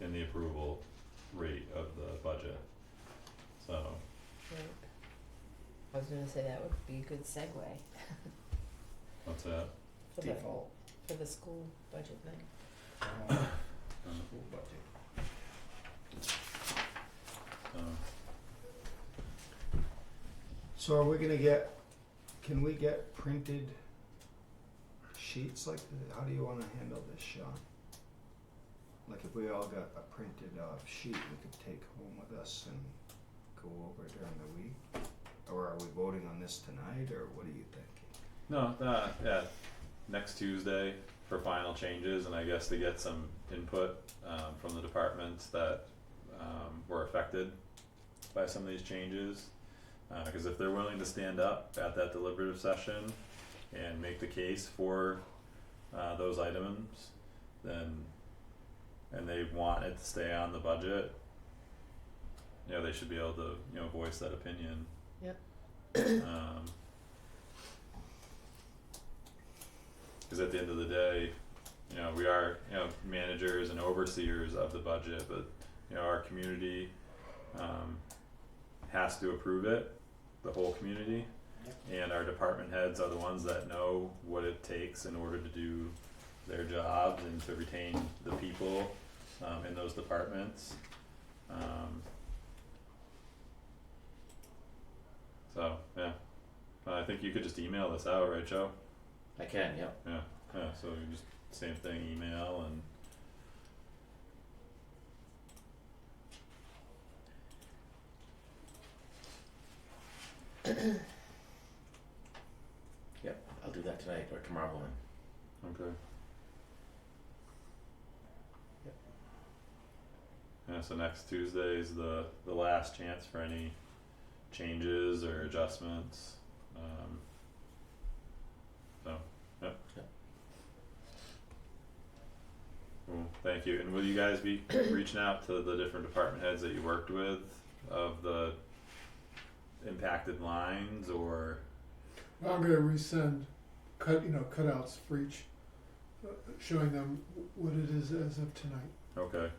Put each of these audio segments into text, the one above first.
in the approval rate of the budget. So, Right. I was gonna say that would be a good segue what's that? for the, default for the school budget thing. uh, full budget. Um, So are we gonna get, can we get printed sheets like, th- how do you wanna handle this, Sean? Like if we all got a printed uh sheet we could take home with us and go over during the week? Or are we voting on this tonight, or what are you thinking? No, uh, yeah, next Tuesday for final changes and I guess to get some input, um, from the departments that, um, were affected by some of these changes. Uh, cause if they're willing to stand up at that deliberative session and make the case for, uh, those items, then, and they want it to stay on the budget, you know, they should be able to, you know, voice that opinion. Yep. Um, Cause at the end of the day, you know, we are, you know, managers and overseers of the budget, but, you know, our community, um, has to approve it, the whole community. And our department heads are the ones that know what it takes in order to do their jobs and to retain the people, um, in those departments. Um. So, yeah, Uh, I think you could just email this out, right, Joe? I can, yep. Yeah, yeah, so you just same thing, email and I'll do that tonight or tomorrow morning. Okay. Yep. Yeah, so next Tuesday is the the last chance for any changes or adjustments, um. So, yep. Yep. Cool, thank you, and will you guys be reaching out to the different department heads that you worked with of the impacted lines or? I'm gonna resend cut, you know, cutouts for each, uh, showing them what it is as of tonight. Okay.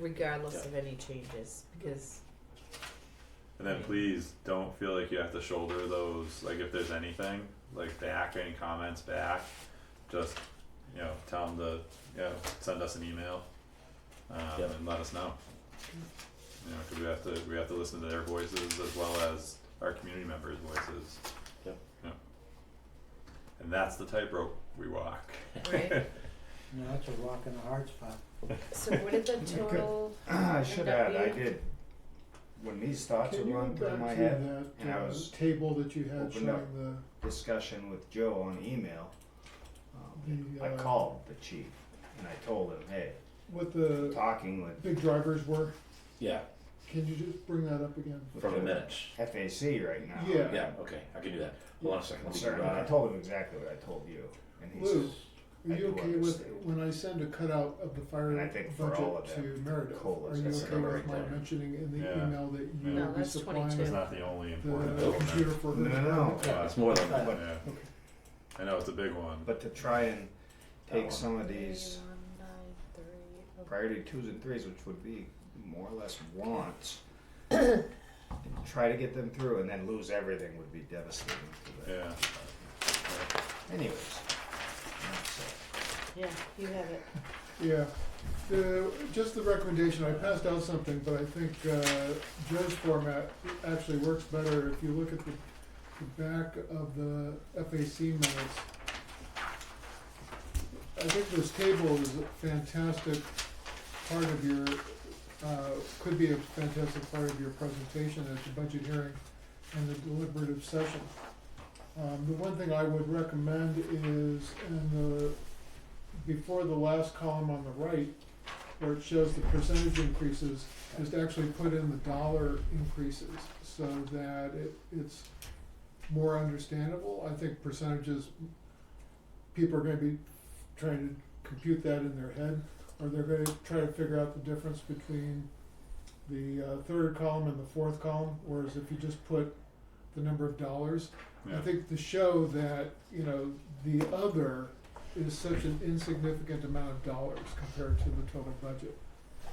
Regardless Yeah. of any changes, because And then Right. please don't feel like you have to shoulder those, like if there's anything, like back, any comments back, just, you know, tell them to, you know, send us an email. Um, Yep. and let us know. You know, 'cause we have to, we have to listen to their voices as well as our community members' voices. Yep. Yeah. And that's the tightrope we walk. right, No, that's a rock in the hard spot. so what did the Okay. total, Ah, I should add, I Would that be- did, when these thoughts Can were you go running through my back head, to and that, I uh, was table that you had showing opened up. the, discussion with Joe on email, um, The, I uh, called the chief and I told him, hey, what the talking with big drivers were? Yeah, Can you just bring that up again? with from the the minutes. FAC right now. Yeah. Yeah, okay, I can do that. Hold on a second. I'm let me uh, sorry, grab I it. told him exactly what I told you, and he Lou. says, Are I you do okay with, understand. when I send a cutout of the fire And I think for all budget of to them, Meredith, colas, are you that's the okay number with right my there. mentioning in the Yeah. email that you No, will be that's supplying 22. It's Yeah. the not the only important computer element, for her? No, no, no. Yeah, it's more than, But- yeah. I know, it's a big one. but to try and one. take some of Three, these one, nine, three, oh. okay. priority twos and threes, which would be more or less wants, and try to get them through, and then lose everything would be devastating to them. Yeah. Anyways, that's it. yeah, you have it, Yeah, the, just the recommendation, I passed out something, but I think, uh, Joe's format actually works better if you look at the, the back of the FAC minutes. I think this table is a fantastic part of your, uh, could be a fantastic part of your presentation at the budget hearing and the deliberative session. Um, the one thing I would recommend is in the before the last column on the right, where it shows the percentage increases, is to actually put in the dollar increases so that it, it's more understandable. I think percentages, people are gonna be trying to compute that in their head, or they're gonna try to figure out the difference between the uh, third column and the fourth column, whereas if you just put the number of dollars, I Yeah, think to show that, you know, the other is such an insignificant amount of dollars compared to the total budget.